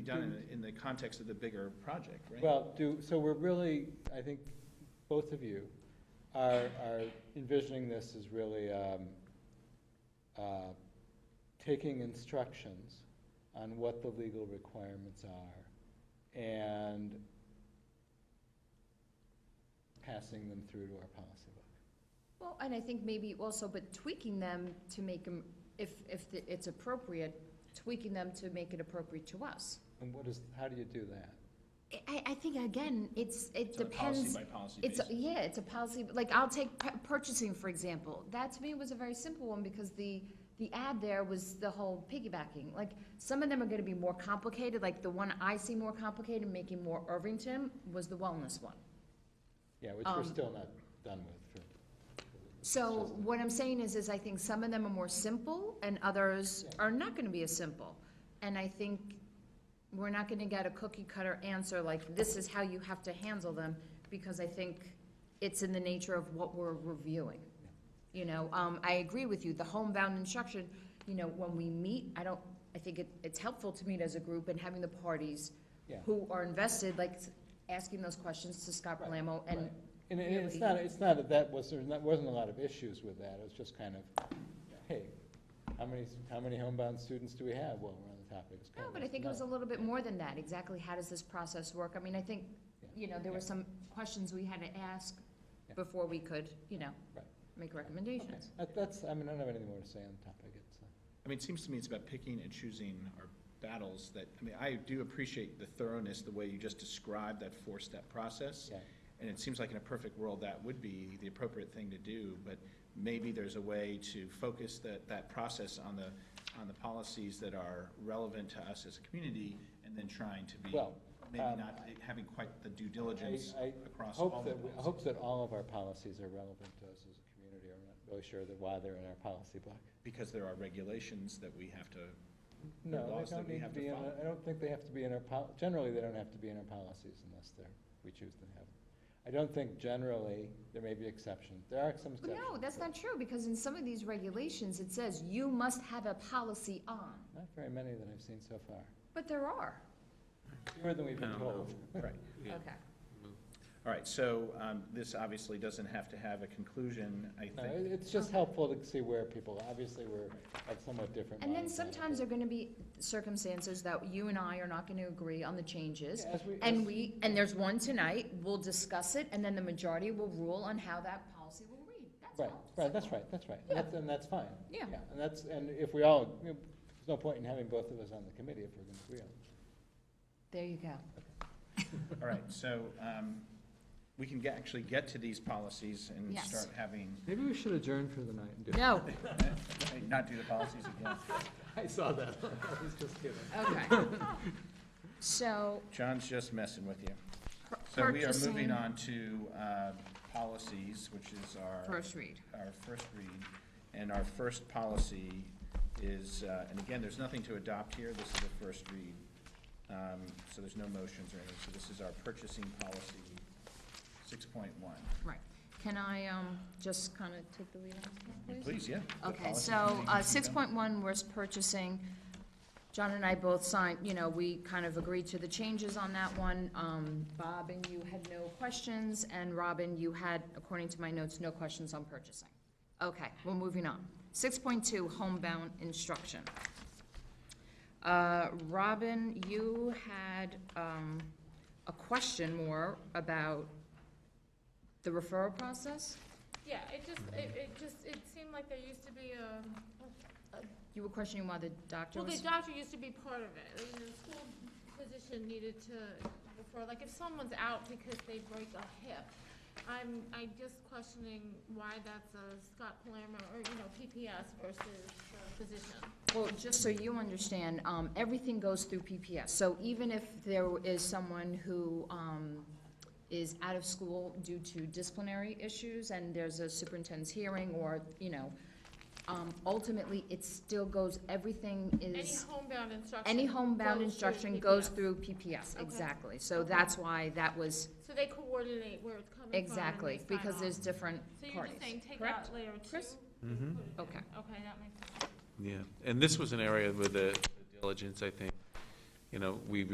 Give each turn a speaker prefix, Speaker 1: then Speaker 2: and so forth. Speaker 1: be done in, the- in the context of the bigger project, right?
Speaker 2: Well, do, so we're really, I think, both of you are, are envisioning this as really, um, uh, taking instructions on what the legal requirements are and passing them through to our policy book.
Speaker 3: Well, and I think maybe also, but tweaking them to make them, if, if the- it's appropriate, tweaking them to make it appropriate to us.
Speaker 2: And what is, how do you do that?
Speaker 3: I- I, I think, again, it's, it
Speaker 1: So
Speaker 3: depends.
Speaker 1: Policy by policy
Speaker 3: It's,
Speaker 1: basis.
Speaker 3: a- yeah, it's a policy, but, like, I'll take pu- purchasing, for example. That to me was a very simple one because the, the ad there was the whole piggybacking. Like, some of them are gonna be more complicated, like the one I see more complicated, making more Irvington, was the wellness one.
Speaker 2: Yeah, which we're
Speaker 3: Um,
Speaker 2: still not done with for.
Speaker 3: So what I'm saying is, is I think some of them are more simple and others are not gonna be as simple. And I think we're not gonna get a cookie cutter answer like, this is how you have to handle them, because I think it's in the nature of what we're reviewing. You know, um, I agree with you, the homebound instruction, you know, when we meet, I don't, I think it, it's helpful to meet as a group and having the parties
Speaker 2: Yeah.
Speaker 3: who are invested, like, asking those questions to Scott
Speaker 2: Right,
Speaker 3: Palamo and
Speaker 2: Right. And it- it's
Speaker 3: really-
Speaker 2: not, it's not that that was, there wasn't a lot of issues with that, it was just kind of, hey, how many, how many homebound students do we have while we're on the topic? It's
Speaker 3: No,
Speaker 2: kind of
Speaker 3: but I
Speaker 2: nice to
Speaker 3: think it was a
Speaker 2: know.
Speaker 3: little bit more than that, exactly how does this process work? I mean, I think, you know, there were some questions we had to ask
Speaker 2: Yeah.
Speaker 3: before we could, you know,
Speaker 2: Right.
Speaker 3: make
Speaker 2: Okay.
Speaker 3: recommendations.
Speaker 2: That- That's, I mean, I don't have anything more to say on the topic, it's, uh,
Speaker 1: I mean, it seems to me it's about picking and choosing our battles that, I mean, I do appreciate the thoroughness, the way you just described that four-step process.
Speaker 2: yeah.
Speaker 1: And it seems like in a perfect world, that would be the appropriate thing to do, but maybe there's a way to focus that, that process on the, on the policies that are relevant to us as a community, and then trying to be,
Speaker 2: Well,
Speaker 1: maybe
Speaker 2: um,
Speaker 1: not having quite the due diligence
Speaker 2: I- I
Speaker 1: across all
Speaker 2: Hope
Speaker 1: the
Speaker 2: that, we- I
Speaker 1: policies.
Speaker 2: hope that all of our policies are relevant to us as a community, I'm not really sure that why they're in our policy book.
Speaker 1: Because there are regulations that we have to,
Speaker 2: No,
Speaker 1: laws that
Speaker 2: they don't
Speaker 1: we
Speaker 2: need to
Speaker 1: have to
Speaker 2: be in,
Speaker 1: follow.
Speaker 2: our- I don't think they have to be in our pol, generally, they don't have to be in our policies unless they're, we choose to have. them. I don't think generally, there may be exceptions, there are some
Speaker 3: But
Speaker 2: exceptions.
Speaker 3: no, that's
Speaker 2: but
Speaker 3: not true, because in some of these regulations, it says you must have a policy on,
Speaker 2: Not very many that I've seen so far,
Speaker 3: but there are.
Speaker 2: fewer than we've been
Speaker 4: No.
Speaker 2: told.
Speaker 1: right.
Speaker 4: Yeah.
Speaker 3: Okay.
Speaker 1: All right, so um, this obviously doesn't have to have a conclusion, I
Speaker 2: No,
Speaker 1: think.
Speaker 2: it- it's just helpful to see where people, obviously, we're at somewhat different.
Speaker 3: And then
Speaker 2: minds on it,
Speaker 3: sometimes there
Speaker 2: but-
Speaker 3: are gonna be circumstances that you and I are not gonna agree on the changes.
Speaker 2: Yeah, as we- as-
Speaker 3: And we, and there's one tonight, we'll discuss it, and then the majority will rule on how that policy will read, that's
Speaker 2: Right,
Speaker 3: all.
Speaker 2: right, that's right, that's right, and that's, and that's fine.
Speaker 3: Yeah.
Speaker 2: And that's, and if we all, you know, there's no point in having both of us on the committee if we're gonna agree on it.
Speaker 3: There you go.
Speaker 1: All right, so um, we can get, actually get to these policies and
Speaker 3: Yes.
Speaker 1: start having,
Speaker 5: Maybe we should adjourn for the night and do,
Speaker 3: No,
Speaker 1: not do the policies again.
Speaker 5: I saw that, I was just kidding.
Speaker 3: okay. So,
Speaker 1: John's just messing with you.
Speaker 3: pur-
Speaker 1: So we are moving
Speaker 3: purchasing-
Speaker 1: on to uh, policies, which is our,
Speaker 3: First read.
Speaker 1: our first read. And our first policy is, uh, and again, there's nothing to adopt here, this is the first read. Um, So there's no motions or anything, so this is our purchasing policy, 6.1.
Speaker 3: Right. Can I um, just kind of take the lead on this, one, please?
Speaker 1: Please, yeah.
Speaker 3: Okay, so uh, 6.1 was purchasing. John and I both signed, you know, we kind of agreed to the changes on that one. Um, Bob and you had no questions, and Robin, you had, according to my notes, no questions on purchasing. Okay, well, moving on. 6.2, homebound instruction. Uh, Robin, you had um, a question more about the referral process?
Speaker 6: Yeah, it just, it, it just, it seemed like there used to be a,
Speaker 3: You were questioning why the doctor
Speaker 6: well, the
Speaker 3: was,
Speaker 6: doctor used to be part of it, and the school physician needed to, before, like, if someone's out because they break a hip, I'm, I just questioning why that's a Scott Palermo, or, you know, PPS versus the physician.
Speaker 3: well, just so you understand, um, everything goes through PPS. So even if there is someone who, um, is out of school due to disciplinary issues and there's a superintendent's hearing or, you know, um, ultimately, it still goes, everything
Speaker 6: Any
Speaker 3: is,
Speaker 6: homebound instruction.
Speaker 3: any homebound
Speaker 6: goes through
Speaker 3: instruction goes
Speaker 6: PPS.
Speaker 3: through PPS,
Speaker 6: Okay.
Speaker 3: exactly. So
Speaker 6: Okay.
Speaker 3: that's why that was,
Speaker 6: So they coordinate where it's coming from. and they
Speaker 3: exactly,
Speaker 6: sign
Speaker 3: because
Speaker 6: off.
Speaker 3: there's different
Speaker 6: So you're
Speaker 3: parties,
Speaker 6: just saying, take
Speaker 3: correct?
Speaker 6: out layer two?
Speaker 3: Chris?
Speaker 6: put it in.
Speaker 3: Okay.
Speaker 6: Okay, that makes sense.
Speaker 4: Yeah, and this was an area with the diligence, I think, you know, we